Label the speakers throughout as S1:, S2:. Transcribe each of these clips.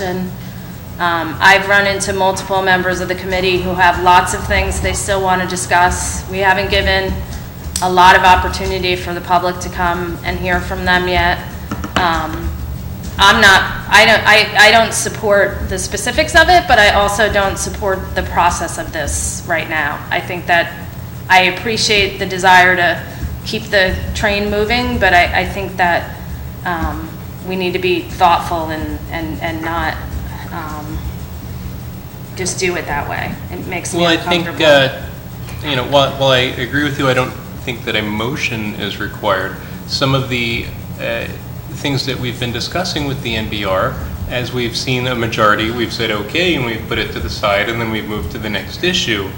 S1: action. Um, I've run into multiple members of the committee who have lots of things they still want to discuss. We haven't given a lot of opportunity for the public to come and hear from them yet. Um, I'm not, I don't, I, I don't support the specifics of it, but I also don't support the process of this right now. I think that, I appreciate the desire to keep the train moving, but I, I think that, um, we need to be thoughtful and, and, and not, um, just do it that way. It makes me
S2: Well, I think,
S1: uncomfortable.
S2: uh, you know, while while I agree with you, I don't think that a motion is required. Some of the uh, things that we've been discussing with the NBR, as we've seen a majority, we've said okay, and we've put it to the side, and then we've moved to the next issue.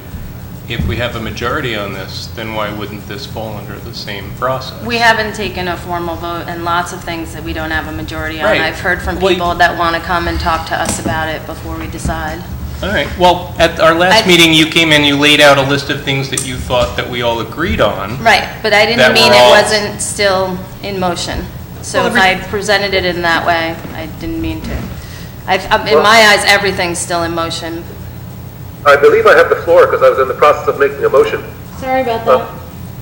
S2: If we have a majority on this, then why wouldn't this fall under the same process?
S1: We haven't taken a formal vote and lots of things that we don't have a majority on.
S2: Right.
S1: I've heard from
S2: Well, you-
S1: people that want to come and talk to us about it before we decide.
S2: All right, well, at our last
S1: I-
S2: meeting, you came and you laid out a list of things that you thought that we all agreed on.
S1: Right, but I didn't
S2: That
S1: mean
S2: we're
S1: it
S2: all-
S1: wasn't still in motion. So
S2: Well,
S1: if
S2: every-
S1: I presented it in that way, I didn't mean to. I've- um, In my eyes, everything's still in motion.
S3: I believe I have the floor because I was in the process of making a motion.
S1: Sorry about
S3: Uh,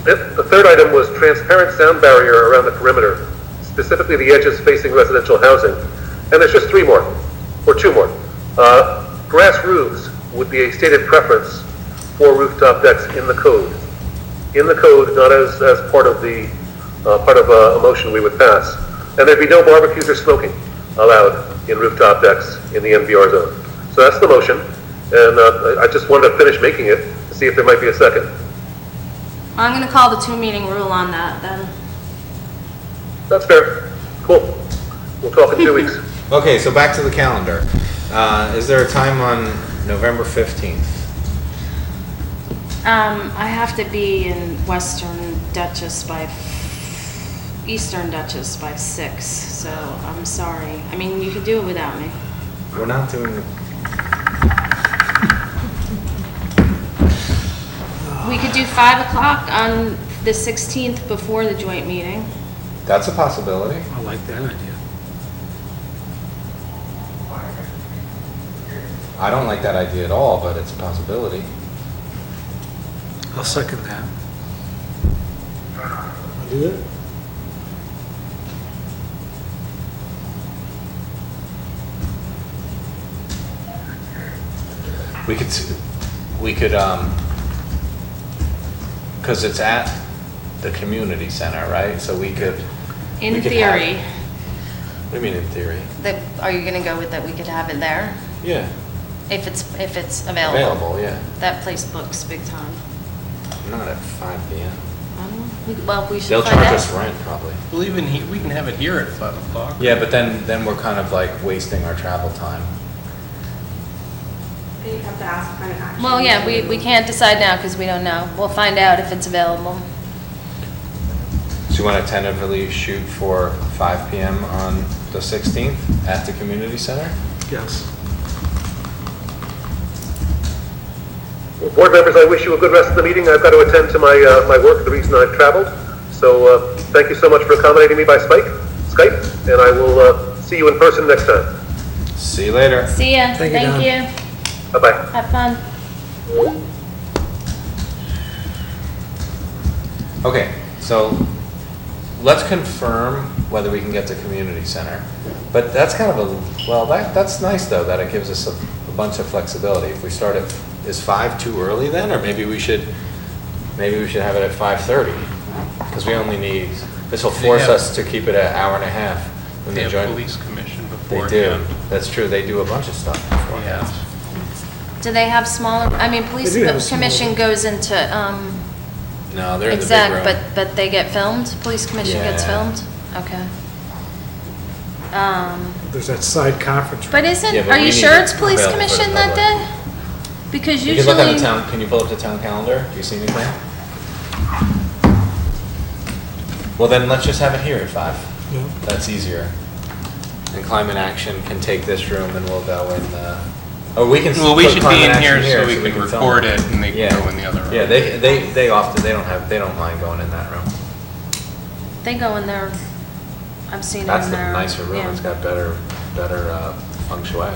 S3: The the third item was transparent sound barrier around the perimeter, specifically the edges facing residential housing. And there's just three more, or two more. Uh, Grass roofs would be a stated preference for rooftop decks in the code. In the code, not as, as part of the, uh, part of a a motion we would pass. And there'd be no barbecues or smoking allowed in rooftop decks in the MVR zone. So that's the motion, and uh, I I just wanted to finish making it, to see if there might be a second.
S1: I'm going to call the two-meeting rule on that, then.
S3: That's fair. Cool. We'll talk in two weeks.
S4: Okay, so back to the calendar. Uh, is there a time on November 15th?
S1: Um, I have to be in Western Duchess by, f- Eastern Duchess by six, so I'm sorry. I mean, you could do it without me.
S4: We're not doing the.
S1: We could do 5 o'clock on the 16th before the joint meeting.
S4: That's a possibility.
S5: I like that idea.
S4: I don't like that idea at all, but it's a possibility.
S5: I'll second that.
S4: We could, s- we could, um, because it's at the community center, right? So we could.
S1: In
S4: we could have-
S1: theory,
S4: What do you mean in theory?
S1: that, are you going to go with that we could have it there?
S4: Yeah,
S1: If it's, if it's available?
S4: available, yeah.
S1: That place books big time.
S4: Not at 5 PM.
S1: I don't know. We- Well, we
S4: They'll
S1: should find
S4: charge us
S1: out.
S4: rent, probably.
S2: Well, even he, we can have it here at 5 o'clock.
S4: Yeah, but then, then we're kind of like wasting our travel time.
S6: They have to ask for an action.
S1: Well, yeah, we, we can't decide now because we don't know. We'll find out if it's available.
S4: So you want to tentatively shoot for 5 PM on the 16th at the community center?
S5: Yes.
S3: Well, Board members, I wish you a good rest of the meeting. I've got to attend to my, uh, my work, the reason I've traveled. So, uh, thank you so much for accommodating me by Spike, Skype, and I will, uh, see you in person next time.
S4: See you later.
S1: See ya.
S5: Thank you, Don.
S1: Thank you.
S3: Bye-bye.
S1: Have fun.
S4: Okay, so let's confirm whether we can get the community center. But that's kind of a, well, that, that's nice though, that it gives us a, a bunch of flexibility. If we start at, is 5 too early then? Or maybe we should, maybe we should have it at 5:30? Because we only need, this will
S2: They
S4: force
S2: have-
S4: us to keep it an hour and a half. when
S2: They
S4: the
S2: have
S4: joint-
S2: police commission before.
S4: They do, that's true, they do a bunch of stuff beforehand.
S2: Yes.
S1: Do they have smaller, I mean, police
S5: They do have a smaller-
S1: commission goes into, um,
S4: No, they're in the big
S1: exact,
S4: room.
S1: but, but they get filmed? Police commission gets
S4: Yeah.
S1: filmed? Okay. Um,
S5: There's that side conference room.
S1: but isn't,
S4: Yeah, but
S1: are
S4: we
S1: you
S4: need
S1: sure
S4: it
S1: it's police
S4: available for the
S1: commission that
S4: public.
S1: day? Because
S4: You can look at
S1: usually,
S4: the town, can you pull up the town calendar? Do you see anything? Well, then let's just have it here at five.
S5: Yeah.
S4: That's easier. And climate action can take this room and we'll go in the, or we can.
S2: Well, we
S4: put
S2: should be
S4: climate
S2: in
S4: action
S2: here so we can
S4: film
S2: record it and they can
S4: Yeah.
S2: go in the other room.
S4: Yeah, they, they, they often, they don't have, they don't mind going in that room.
S1: they go in there, I've seen them
S4: That's
S1: in
S4: the
S1: there.
S4: nicer room,
S1: yeah.
S4: it's got better, better, uh, feng shui.